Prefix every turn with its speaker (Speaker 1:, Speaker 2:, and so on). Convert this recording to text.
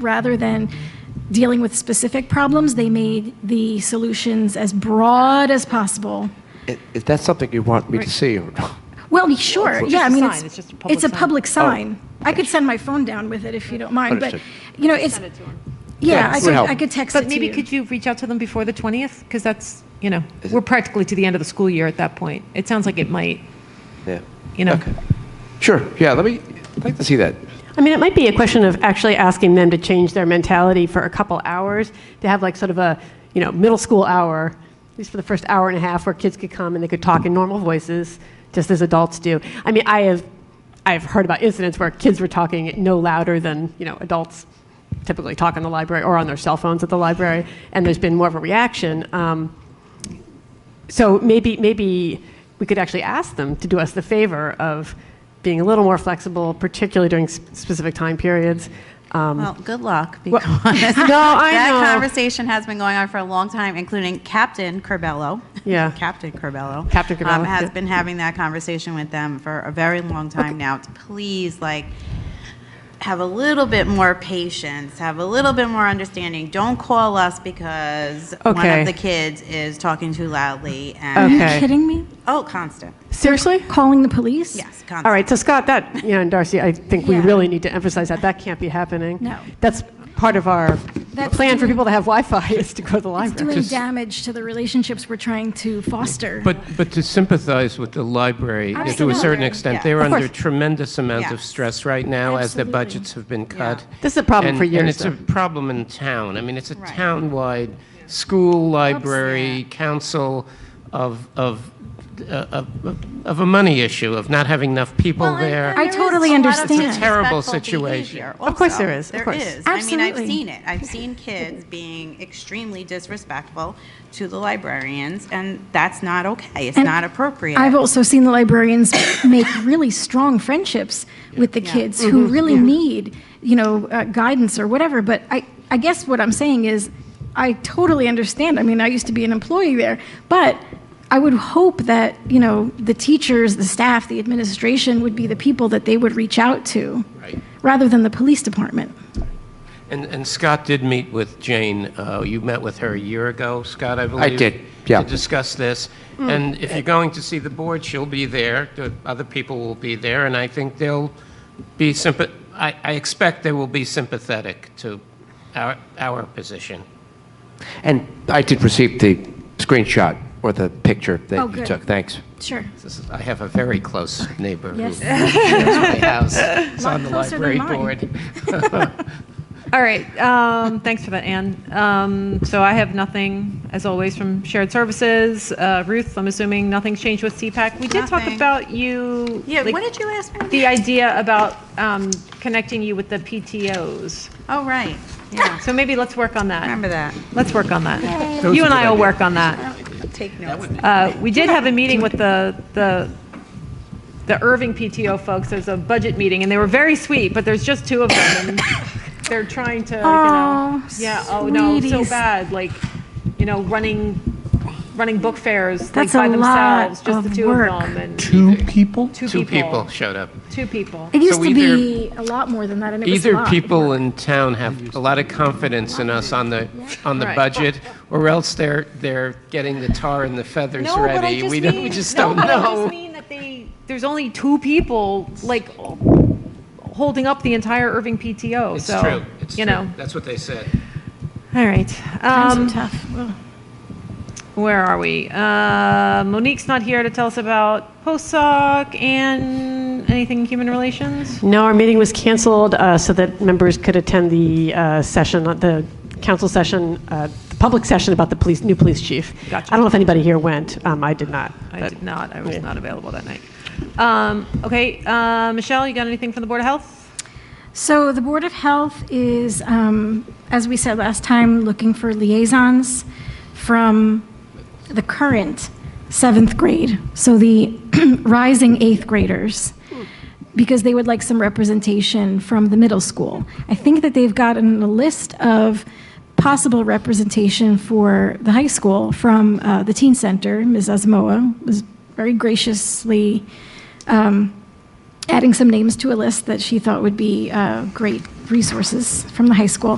Speaker 1: rather than dealing with specific problems, they made the solutions as broad as possible.
Speaker 2: I- Is that something you want me to see? or not?
Speaker 1: Well, sure,
Speaker 2: It's
Speaker 1: yeah, I
Speaker 3: just a
Speaker 1: mean,
Speaker 3: sign.
Speaker 1: it's,
Speaker 3: It's just a public
Speaker 1: it's a
Speaker 3: sign.
Speaker 1: public sign. I could send my phone down with it if you don't mind, but,
Speaker 2: Understood.
Speaker 1: you know, it's,
Speaker 2: Yeah,
Speaker 1: yeah, I
Speaker 2: would
Speaker 1: could,
Speaker 2: help.
Speaker 1: I could text it
Speaker 3: But
Speaker 1: to
Speaker 3: maybe
Speaker 1: you.
Speaker 3: could you reach out to them before the 20th? Because that's, you know, we're practically to the end of the school year at that point. It sounds like it might,
Speaker 2: Yeah.
Speaker 3: you know.
Speaker 2: Okay. Sure, yeah, let me, I'd like to see that.
Speaker 4: I mean, it might be a question of actually asking them to change their mentality for a couple hours, to have like sort of a, you know, middle school hour, at least for the first hour and a half, where kids could come and they could talk in normal voices, just as adults do. I mean, I have, I have heard about incidents where kids were talking no louder than, you know, adults typically talk in the library or on their cell phones at the library, and there's been more of a reaction. Um, so maybe, maybe we could actually ask them to do us the favor of being a little more flexible, particularly during s- specific time periods. Um,
Speaker 1: Oh.
Speaker 5: Well, good luck. Because
Speaker 4: I
Speaker 5: that
Speaker 4: know.
Speaker 5: conversation has been going on for a long time, including Captain Corbello.
Speaker 4: Yeah.
Speaker 5: Captain Corbello. um,
Speaker 4: Captain Corbello,
Speaker 5: has
Speaker 4: yeah.
Speaker 5: been having that conversation with them for a very long time now. To please, like, have a little bit more patience, have a little bit more understanding. Don't call us because one
Speaker 4: Okay.
Speaker 5: of the kids is talking too loudly
Speaker 1: Are
Speaker 5: and
Speaker 1: you
Speaker 4: Okay.
Speaker 1: kidding me?
Speaker 5: oh, constant.
Speaker 4: seriously?
Speaker 1: Calling the police?
Speaker 5: Yes, constant.
Speaker 4: All right, so Scott, that, you know, and Darcy, I think we
Speaker 1: Yeah.
Speaker 4: really need to emphasize that. That can't be happening.
Speaker 1: No.
Speaker 4: That's part of our
Speaker 1: That's
Speaker 4: plan for
Speaker 1: doing-
Speaker 4: people to have Wi-Fi is to go to the
Speaker 1: It's
Speaker 4: library.
Speaker 1: doing damage to the relationships we're trying to foster.
Speaker 6: But, but to sympathize with the library uh, to a certain
Speaker 1: Absolutely.
Speaker 6: extent,
Speaker 5: Yeah.
Speaker 6: they're
Speaker 4: Of
Speaker 6: under
Speaker 4: course.
Speaker 6: tremendous amount of
Speaker 5: Yes.
Speaker 6: stress right now as their
Speaker 1: Absolutely.
Speaker 6: budgets have been cut.
Speaker 4: This is a problem
Speaker 6: And-
Speaker 4: for
Speaker 6: And
Speaker 4: years,
Speaker 6: it's a problem in town. I mean, it's a
Speaker 5: Right.
Speaker 6: town-wide, school, library, council of, of, uh, of, of- of a money issue, of not having enough people there.
Speaker 1: I totally understand. It's a
Speaker 6: terrible situation.
Speaker 4: Of course there is, of
Speaker 5: There
Speaker 4: course.
Speaker 5: is. I mean, I've
Speaker 1: Absolutely.
Speaker 5: seen it. I've seen kids being extremely disrespectful to the librarians, and that's not okay. It's
Speaker 1: And
Speaker 5: not appropriate.
Speaker 1: I've also seen the librarians make really strong friendships with the kids who really need, you know, uh, guidance or whatever. But I, I guess what I'm saying is, I totally understand. I mean, I used to be an employee there, but I would hope that you know the teachers, the staff, the administration would be the people that they would reach out to,
Speaker 6: Right.
Speaker 1: rather than the police department.
Speaker 6: And, and Scott did meet with Jane, uh, you met with her a year ago, Scott, I believe?
Speaker 2: did, yeah.
Speaker 6: To discuss this.
Speaker 1: Mm.
Speaker 6: And if you're going to see the board, she'll be there, the other people will be there, and I think they'll be sympath, I, I expect they will be sympathetic to our, our position.
Speaker 2: And I did receive the screenshot or the picture
Speaker 1: Oh,
Speaker 2: that you
Speaker 1: good.
Speaker 2: took, thanks.
Speaker 1: Sure.
Speaker 6: This is- I have a very close neighbor who lives
Speaker 1: Yes.
Speaker 6: in my house, is on the
Speaker 1: closer than
Speaker 6: library
Speaker 1: mine.
Speaker 6: board.
Speaker 3: All right, um, thanks for that, Anne. Um, So I have nothing, as always, from shared services. Uh, Ruth, I'm assuming nothing's changed with CPAC. We did talk
Speaker 5: Nothing.
Speaker 3: about you.
Speaker 5: yeah,
Speaker 3: like,
Speaker 5: what did you ask me?
Speaker 3: The idea about um, connecting you with the PTOs.
Speaker 5: oh, right. Yeah.
Speaker 3: So maybe let's work on that.
Speaker 5: Remember that.
Speaker 3: Let's work on that. You and I will work on that.
Speaker 5: Take notes.
Speaker 3: Uh, We did have a meeting with the, the the Irving PTO folks. There's a budget meeting, and they were very sweet, but there's just two of them, and they're trying to, you know.
Speaker 1: Aw,
Speaker 3: Yeah, oh, no, so
Speaker 1: sweeties.
Speaker 3: bad, like, you know, running, running book fairs, like,
Speaker 1: That's
Speaker 3: by
Speaker 1: a lot
Speaker 3: themselves, just the
Speaker 1: of
Speaker 3: two of
Speaker 1: work.
Speaker 3: them, and
Speaker 7: Two people?
Speaker 3: two
Speaker 6: Two people
Speaker 3: people.
Speaker 6: showed up.
Speaker 3: Two people.
Speaker 1: It used
Speaker 6: So
Speaker 1: to
Speaker 6: either-
Speaker 1: be a lot more than that, and it was a
Speaker 6: Either
Speaker 1: lot.
Speaker 6: people in town have a lot of confidence in us on the, on the
Speaker 3: Right.
Speaker 6: budget, or else they're, they're getting the tar and the feathers
Speaker 3: No, but I
Speaker 6: ready.
Speaker 3: just
Speaker 6: We
Speaker 3: mean.
Speaker 6: don't, we just
Speaker 3: no,
Speaker 6: don't
Speaker 3: but I just
Speaker 6: know.
Speaker 3: mean that they, there's only two people, like, holding up the entire Irving PTO,
Speaker 6: It's
Speaker 3: so.
Speaker 6: true, it's
Speaker 3: You
Speaker 6: true.
Speaker 3: know,
Speaker 6: That's what they said.
Speaker 3: all right.
Speaker 1: Times are
Speaker 3: Um,
Speaker 1: tough. Ugh.
Speaker 3: Where are we? Uh, Monique's not here to tell us about postsoc and anything human relations.
Speaker 4: No, our meeting was canceled uh, so that members could attend the uh, session, the council session, uh, the public session about the police, new police chief.
Speaker 3: Gotcha.
Speaker 4: I don't know if anybody here went. Um, I did not.
Speaker 3: I
Speaker 4: but-
Speaker 3: did not. I was
Speaker 4: Yeah.
Speaker 3: not available that night. Um, okay, uh, Michelle, you got anything from the Board of Health?
Speaker 1: So the Board of Health is, um, as we said last time, looking for liaisons from the current seventh grade, so the rising eighth graders, because they would like some representation from the middle school. I think that they've gotten a list of possible representation for the high school from uh, the teen center. Ms. Osmoa was very graciously um, adding some names to a list that she thought would be uh, great resources from the high school.